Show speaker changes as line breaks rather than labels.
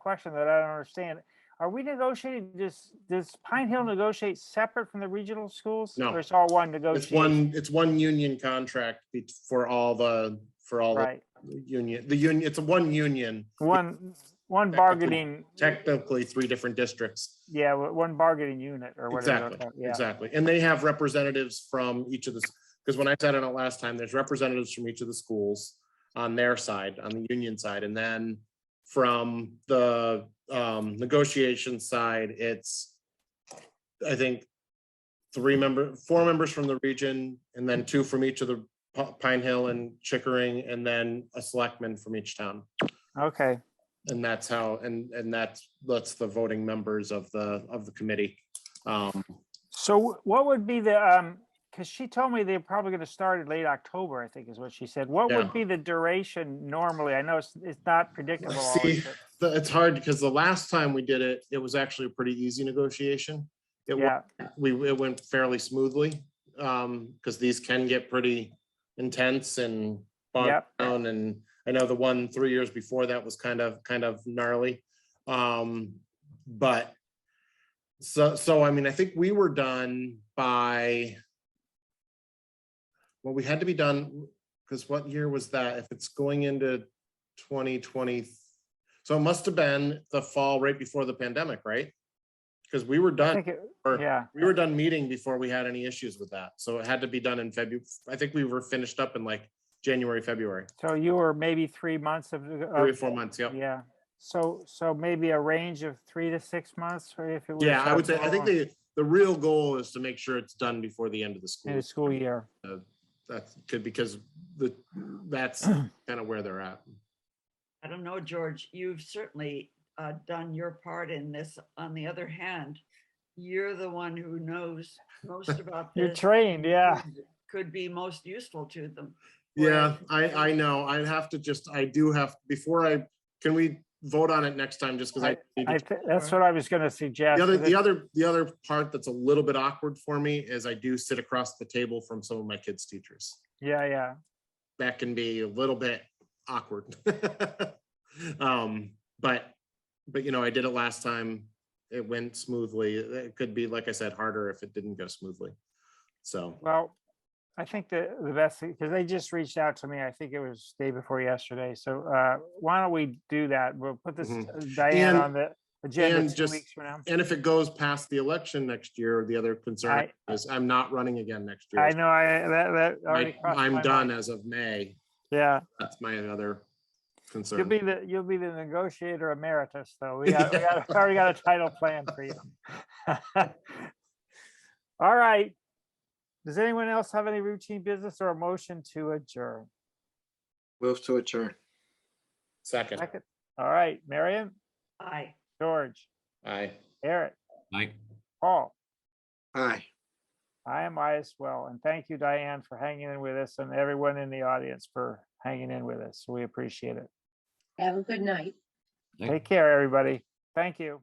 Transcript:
question that I don't understand. Are we negotiating, does, does Pine Hill negotiate separate from the regional schools?
Mm-hmm. No.
Or it's all one
It's
negotiation?
one, it's one union contract be- for all the, for all the
Right,
union, the union, it's a one union,
one, one
Technically-
bargaining,
technically three different districts.
yeah, wa- one bargaining unit or whatever.
Exactly,
they're called, Yeah,
exactly. And they have representatives from each of the, because when I sat on it last time, there's representatives from each of the schools on their side, on the union side, and then from the um, negotiation side, it's, I think, three member, four members from the region, and then two from each of the P- Pine Hill and Chickering, and then a selectman from each town.
okay,
And that's how, and, and that's, that's the voting members of the, of the committee. Um,
so wh- what would be the, um, because she told me they're probably gonna start in late October, I think is what she said. What
Yeah.
would be the duration normally? I know it's, it's not predictable.
see.
always, but-
the- it's hard because the last time we did it, it was actually a pretty easy negotiation. It went,
Yeah,
we, it went fairly smoothly, um, because these can get pretty intense and bogged
Yep.
down, and I know the one three years before that was kind of, kind of gnarly. Um, but so, so I mean, I think we were done by well, we had to be done, because what year was that? If it's going into twenty twenty. So it must have been the fall right before the pandemic, right? Because we were
I
done,
think it,
or
yeah,
we were done meeting before we had any issues with that. So it had to be done in February. I think we were finished up in like January, February,
so you were maybe three months of.
three or
of-
four months. Yep.
Yeah, so, so maybe a range of three to six months, or if it was.
Yeah, I would say, I
October
think the, the real goal is to make sure it's done before the end of the
In
school.
the school year,
That's good because the, that's kind of where they're at.
I don't know, George, you've certainly uh, done your part in this. On the other hand, you're the one who knows most about
you're
this.
trained, yeah,
and Could be most useful to them.
Yeah,
Whereas-
I, I know. I have to just, I do have, before I, can we vote on it next time just because I. need to
I, thi- that's what I was gonna suggest.
The other,
is it-
the other, the other part that's a little bit awkward for me is I do sit across the table from some of my kids' teachers.
Yeah, yeah,
That can be a little bit awkward. Um, but, but you know, I did it last time. It went smoothly. It could be, like I said, harder if it didn't go smoothly. So,
well, I think the, the best, because they just reached out to me, I think it was day before yesterday, so, uh, why don't we do that? We'll put this
Mhm.
uh, Diane
And-
on the agenda
and
two
just-
weeks from now.
and if it goes past the election next year, the other concern is I'm not running again next year.
I know, I, that, that. already
I,
crossed
I'm
my
done
mind.
as of May.
Yeah.
That's my other
You'll be
concern.
the, you'll be the negotiator emeritus, though. We got, we got, we already got a title plan for you. All right. Does anyone else have any routine business or a motion to adjourn?
Move to adjourn.
Second,
Second. All right, Marion,
Aye.
George,
aye.
Eric,
Aye.
Paul,
Aye.
I am I as well. And thank you, Diane, for hanging in with us and everyone in the audience for hanging in with us. We appreciate it.
Have a good night.
Thank-
Take care, everybody. Thank you.